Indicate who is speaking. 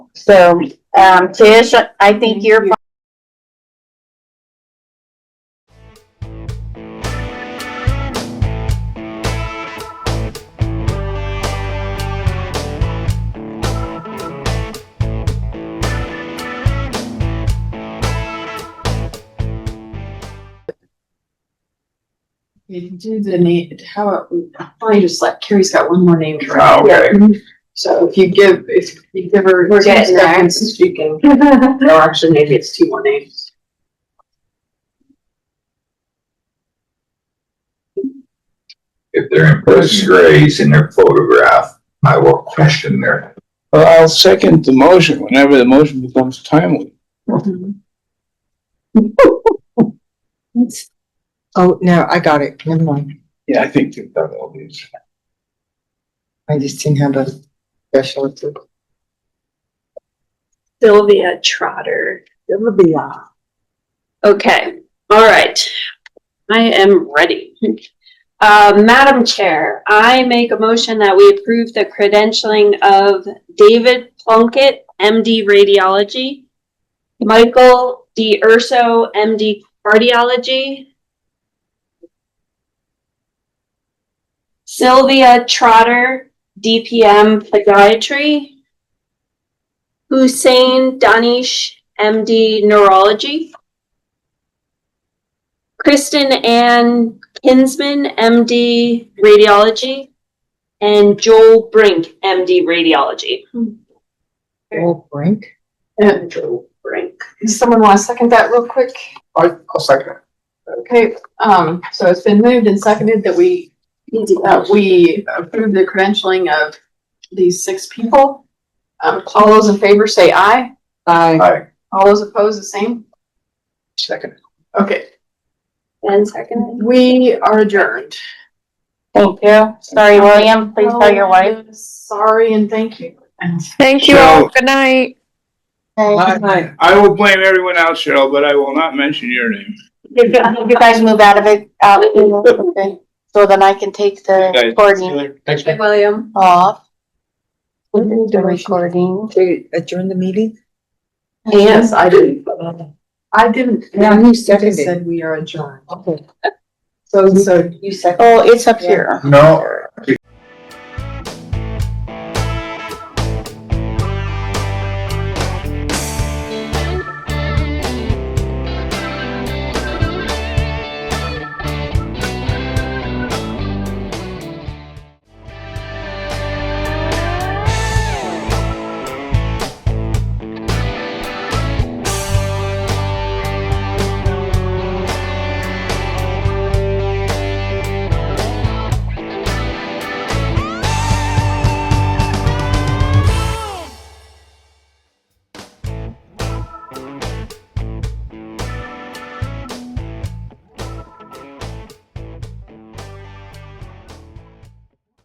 Speaker 1: So, um, Tish, I think you're
Speaker 2: You can do the name, how, I just like, Carrie's got one more name. for it.
Speaker 3: Okay.
Speaker 2: So if you give, if you give her
Speaker 1: We're
Speaker 2: two
Speaker 1: getting there.
Speaker 2: seconds, she can,
Speaker 1: fine.
Speaker 2: or actually maybe it's two more names.
Speaker 3: If they're in disgrace in their photograph, I will question their.
Speaker 4: Well, I'll second the motion whenever the motion becomes timely.
Speaker 1: Mm-hmm.
Speaker 5: Oh, no, I got it. Never mind.
Speaker 4: Yeah, I think they've done all these.
Speaker 5: I just didn't have a special. to-
Speaker 6: Sylvia Trotter. Sylvia. Okay, all right. I am ready. Uh, Madam Chair, I make a motion that we approve the credentialing of David Plunkett, MD Radiology, Michael D. Urso, MD Cardiology, Sylvia Trotter, DPM Podiatry, Hussein Danish, MD Neurology. Kristen Ann Kinsman, MD Radiology. And Joel Brink, MD Radiology.
Speaker 5: Old brink.
Speaker 2: And
Speaker 6: Joel Brink.
Speaker 2: does someone want to second that real quick?
Speaker 3: I, I'll second.
Speaker 2: Okay, um, so it's been moved and seconded that we, uh, we approve the credentialing of these six people. Um, all those in favor say aye.
Speaker 5: I
Speaker 3: Aye.
Speaker 2: All those opposed, the same.
Speaker 4: Second.
Speaker 2: Okay,
Speaker 6: And second.
Speaker 2: we are adjourned.
Speaker 1: Thank you. Sorry, William, please tell your wife.
Speaker 2: Oh, Sorry and thank you.
Speaker 7: Thank you
Speaker 4: So-
Speaker 7: all. Good night.
Speaker 4: I I will blame everyone else, Cheryl, but I will not mention your name.
Speaker 1: If you- if you guys move out of it, out, you know, okay, so then I can take the
Speaker 4: Okay.
Speaker 1: recording
Speaker 4: Thanks,
Speaker 6: William.
Speaker 1: off,
Speaker 5: We need
Speaker 1: the
Speaker 5: to re-
Speaker 1: recording.
Speaker 5: to adjourn the meeting?
Speaker 2: Yes, I did. I didn't.
Speaker 5: Yeah, who
Speaker 2: They
Speaker 5: seconded?
Speaker 2: said we are adjourned.
Speaker 5: Okay.
Speaker 2: So, so
Speaker 5: You second.
Speaker 1: Oh, it's up here.
Speaker 3: No,